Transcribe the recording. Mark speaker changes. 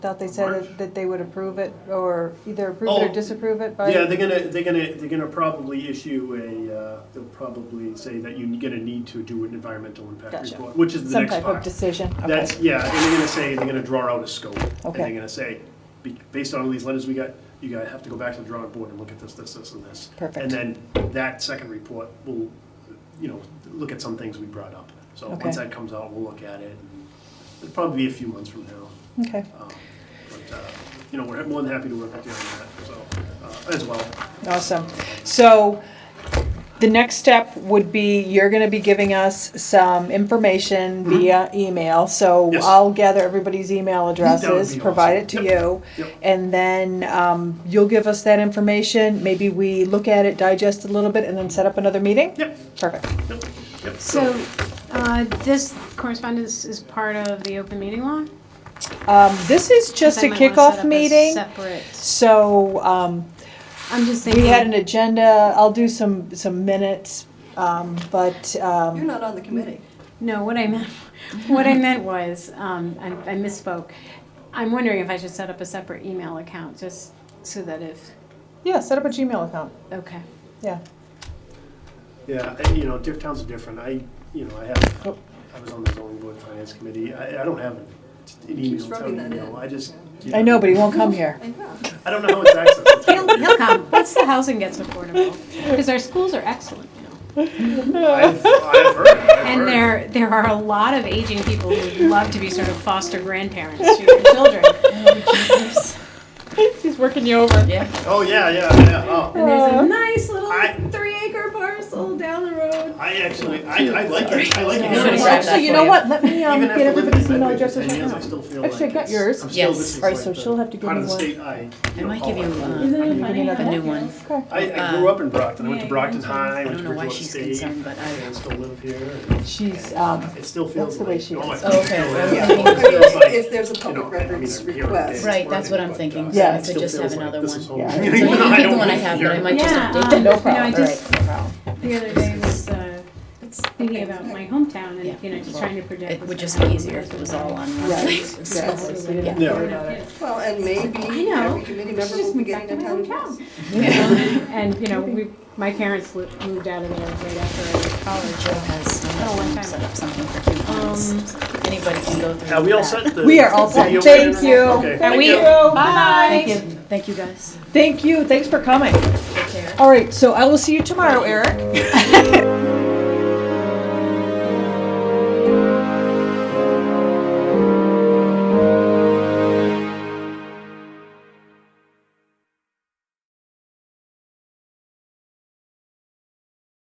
Speaker 1: Thought they said that- that they would approve it, or either approve it
Speaker 2: Oh.
Speaker 1: or disapprove it by?
Speaker 2: Yeah, they're gonna, they're gonna, they're gonna probably issue a, uh, they'll probably say that you're gonna need to do an environmental impact
Speaker 1: Gotcha.
Speaker 2: report, which is the
Speaker 1: Some
Speaker 2: next
Speaker 1: type of
Speaker 2: part.
Speaker 1: decision, okay.
Speaker 2: That's, yeah, and they're gonna say, they're gonna draw out a scope. And
Speaker 1: Okay.
Speaker 2: they're gonna say, be- based on all these letters we got, you gotta have to go back to the drawing board and look at this, this, this, and this.
Speaker 1: Perfect.
Speaker 2: And then that second report will, you know, look at some things we brought up. So
Speaker 1: Okay.
Speaker 2: once that comes out, we'll look at it. and It'll probably be a few months from now.
Speaker 1: Okay,
Speaker 2: Um, But, uh, you know, we're more than happy to work with you on that, so, uh, as well.
Speaker 1: awesome. So the next step would be you're gonna be giving us some information via email. So
Speaker 2: Mm-hmm. Yes.
Speaker 1: I'll gather everybody's email addresses,
Speaker 2: awesome.
Speaker 1: provide it to
Speaker 2: Yep.
Speaker 1: you.
Speaker 2: Yep.
Speaker 1: And then um, you'll give us that information. Maybe we look at it, digest a little bit, and then set up another meeting?
Speaker 2: Yep,
Speaker 1: Perfect.
Speaker 2: yep, yep.
Speaker 3: So, uh, this correspondence is part of the open meeting law?
Speaker 1: Um, This is just
Speaker 3: I
Speaker 1: a
Speaker 3: might wanna set up
Speaker 1: kickoff
Speaker 3: a
Speaker 1: meeting.
Speaker 3: Separate,
Speaker 1: So um,
Speaker 3: I'm just
Speaker 1: we had an
Speaker 3: thinking,
Speaker 1: agenda, I'll do some, some minutes, um, but,
Speaker 4: You're
Speaker 1: um,
Speaker 4: not on the committee.
Speaker 3: no, what I meant, what I meant was, um, I I misspoke. I'm wondering if I should set up a separate email account, just so that if,
Speaker 1: yeah, set up a Gmail account,
Speaker 3: okay.
Speaker 1: yeah.
Speaker 2: Yeah, I- you know, different towns are different. I, you know, I have,
Speaker 1: Oh.
Speaker 2: I was on the zoning board finance committee. I, I don't have an an email,
Speaker 4: keeps rubbing
Speaker 2: town
Speaker 4: that
Speaker 2: email.
Speaker 4: in.
Speaker 2: I just. you
Speaker 1: I know, but he won't come here.
Speaker 4: I know.
Speaker 2: I don't know how it's accessed.
Speaker 3: He'll, he'll come, once the housing gets affordable, because our schools are excellent now.
Speaker 2: I've, I've heard, I've
Speaker 3: And
Speaker 2: heard.
Speaker 3: there, there are a lot of aging people who would love to be sort of foster grandparents to their children. Oh,
Speaker 1: He's working you over.
Speaker 2: Oh, yeah, yeah, yeah. Oh,
Speaker 3: And there's a nice little
Speaker 2: I-
Speaker 3: three acre parcel down the road.
Speaker 2: I actually, I, I like it. I like it.
Speaker 5: Sorry.
Speaker 2: Even
Speaker 5: Sorry. grab that
Speaker 1: Actually, you
Speaker 5: for
Speaker 1: know
Speaker 5: you.
Speaker 1: what, let me, um,
Speaker 2: after
Speaker 1: get
Speaker 2: living
Speaker 1: everybody's
Speaker 2: in
Speaker 1: email
Speaker 2: Medway for
Speaker 1: addresses
Speaker 2: 10
Speaker 1: right
Speaker 2: years, I
Speaker 1: now.
Speaker 2: still feel
Speaker 1: Actually, I
Speaker 2: like
Speaker 1: got
Speaker 2: it's-
Speaker 1: yours.
Speaker 2: I'm still-
Speaker 5: Yes.
Speaker 2: this is
Speaker 1: All right,
Speaker 2: like
Speaker 1: so
Speaker 2: the
Speaker 1: she'll have to give
Speaker 2: Part of
Speaker 1: me
Speaker 2: the
Speaker 1: one.
Speaker 2: state I.
Speaker 5: I might give you
Speaker 2: know,
Speaker 5: uh,
Speaker 1: You need
Speaker 5: a
Speaker 1: another?
Speaker 5: new one.
Speaker 1: Okay,
Speaker 2: I, I grew up in Brockton. I went to
Speaker 5: Yeah,
Speaker 2: Brockton
Speaker 5: I
Speaker 2: High, I went
Speaker 5: don't
Speaker 2: to
Speaker 5: know why
Speaker 2: Bridgewater
Speaker 5: she's
Speaker 2: State.
Speaker 5: concerned, but I-
Speaker 2: I still live here. and
Speaker 1: she's, um,
Speaker 2: It still
Speaker 1: that's
Speaker 2: feels
Speaker 1: the way
Speaker 2: like,
Speaker 1: she
Speaker 2: oh my.
Speaker 1: is.
Speaker 2: God,
Speaker 5: Okay,
Speaker 2: it
Speaker 5: well,
Speaker 2: feels
Speaker 5: yeah.
Speaker 2: like- it feels like-
Speaker 4: If there's a
Speaker 2: you know, I
Speaker 4: public
Speaker 2: mean,
Speaker 4: records
Speaker 2: I'm here all day,
Speaker 4: request.
Speaker 2: it's
Speaker 5: Right, that's what I'm
Speaker 2: working,
Speaker 5: thinking,
Speaker 2: but,
Speaker 1: so
Speaker 2: uh,
Speaker 1: I
Speaker 2: it
Speaker 5: could
Speaker 2: still
Speaker 5: just
Speaker 2: feels
Speaker 5: have
Speaker 2: like
Speaker 5: another
Speaker 2: this is home.
Speaker 5: one.
Speaker 1: Yeah.
Speaker 5: So you
Speaker 2: know, I
Speaker 5: can keep the
Speaker 2: don't
Speaker 5: one I
Speaker 2: live
Speaker 5: have,
Speaker 2: here.
Speaker 5: but I might just
Speaker 3: Yeah,
Speaker 5: update
Speaker 3: um,
Speaker 5: them.
Speaker 3: No problem. no,
Speaker 5: All
Speaker 3: I just-
Speaker 5: right, no problem.
Speaker 3: The other day was uh, thinking about my hometown
Speaker 5: Yeah.
Speaker 3: and, you know, just trying to project.
Speaker 5: It would
Speaker 3: what's
Speaker 5: just be
Speaker 3: happening.
Speaker 5: easier if it was all on one
Speaker 1: Right.
Speaker 5: thing.
Speaker 1: Yeah, so
Speaker 5: So,
Speaker 1: we didn't
Speaker 5: yeah.
Speaker 1: worry about it.
Speaker 4: Well, and
Speaker 3: I
Speaker 4: maybe
Speaker 3: know.
Speaker 4: every committee member
Speaker 3: Just
Speaker 4: will be
Speaker 3: moved
Speaker 4: getting
Speaker 3: back to
Speaker 4: a
Speaker 3: my
Speaker 4: town.
Speaker 3: hometown.
Speaker 4: address.
Speaker 3: And, you know, we, my parents lo- moved out of there right after I was college.
Speaker 5: Joe has done
Speaker 3: Oh, one time. Um,
Speaker 5: that, set up something for coupons. Anybody can go through.
Speaker 2: Are we all
Speaker 5: that.
Speaker 2: set? The
Speaker 1: We are all set,
Speaker 2: video
Speaker 1: thank
Speaker 2: went in?
Speaker 1: you.
Speaker 2: Okay, thank
Speaker 3: we-
Speaker 2: you.
Speaker 3: Bye.
Speaker 5: Thank you, thank you guys.
Speaker 1: Thank you, thanks for coming.
Speaker 5: Take care.
Speaker 1: All right, so I will see you tomorrow, Eric.